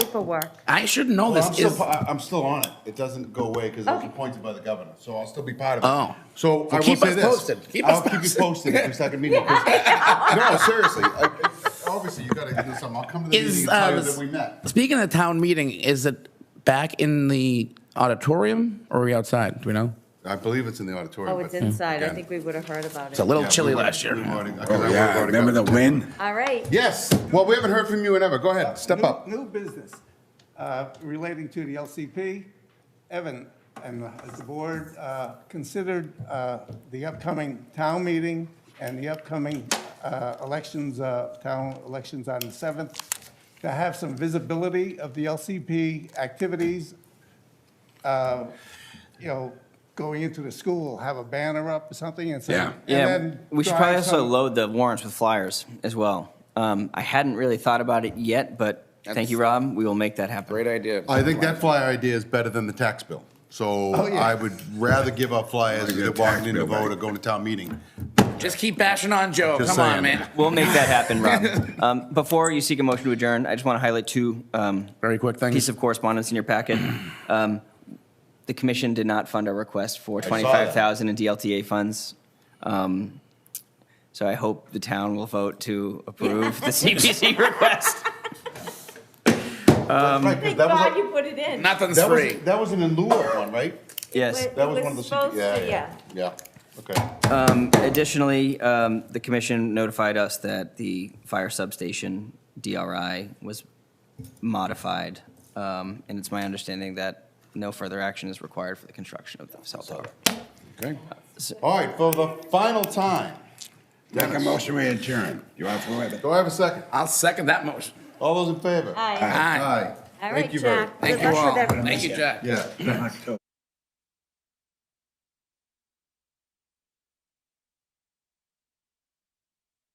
paperwork. I should know Well, I'm this. still, Is- pa- I- I'm still on it. It doesn't go away because I was Okay. appointed by the governor, so I'll still be part of it. Oh. So I will keep say us this. posted. Keep us I'll keep you posted. posted if we start a meeting. 'cause- No, seriously, I- I- obviously you gotta do something. I'll come to the meeting Is, and uh, tell you this- that we met. Speaking of town meeting, is it back in the auditorium or are we outside? Do we know? I believe it's in the auditorium. Oh, it's but- inside. I Yeah. think we would have heard about It's a it. little Yeah, we chilly would've- last year. we would've- 'cause I Oh, would've yeah, already remember the got- win? All right. Yes, well, we haven't heard from you in ever. Go ahead, step New- up. New business uh, relating to the LCP. Evan, and has the board uh, considered uh, the upcoming town meeting and the upcoming uh, elections, uh, town elections on the 7th, to have some visibility of the LCP activities uh, you know, going into the school, have a banner up or something and say. Yeah. and Yeah, then we should drive probably also some- load the warrants with flyers as well. Um, I hadn't really thought about it yet, but thank you, Rob. We will make that happen. Great idea. I think that flyer idea is better than the tax bill. So Oh, yeah. I would rather give up flyers Get a than walking tax in to bill back. vote or going to town meeting. Just keep bashing on Joe. Just Come on, saying. man. We'll make that happen, Rob. Um, Before you seek a motion to adjourn, I just want to highlight two um, Very quick things. piece of correspondence in your packet. Um, The commission did not fund our request for saw that. 25,000 in DLTA funds. Um, So I hope the town will vote to approve the CPC request. Right, 'cause Thank that was a- God you put it in. Nothing's That was, free. that was an in lieu of one, right? Yes. Wait, That It was one of the. was secret- supposed to, Yeah, okay. Additionally, um, the commission notified us that the fire substation DRI was modified. um, And it's my understanding that no further action is required for the construction of the cell tower. Okay. All right, for the final time, Make a motion, we adjourn. You are forever. do I have a second? I'll second that motion. All those in favor? Aye. Aye. Aye. All Thank right, you very- Jack. Good Thank you luck with all. everything. Thank you, Jack. Yeah. October.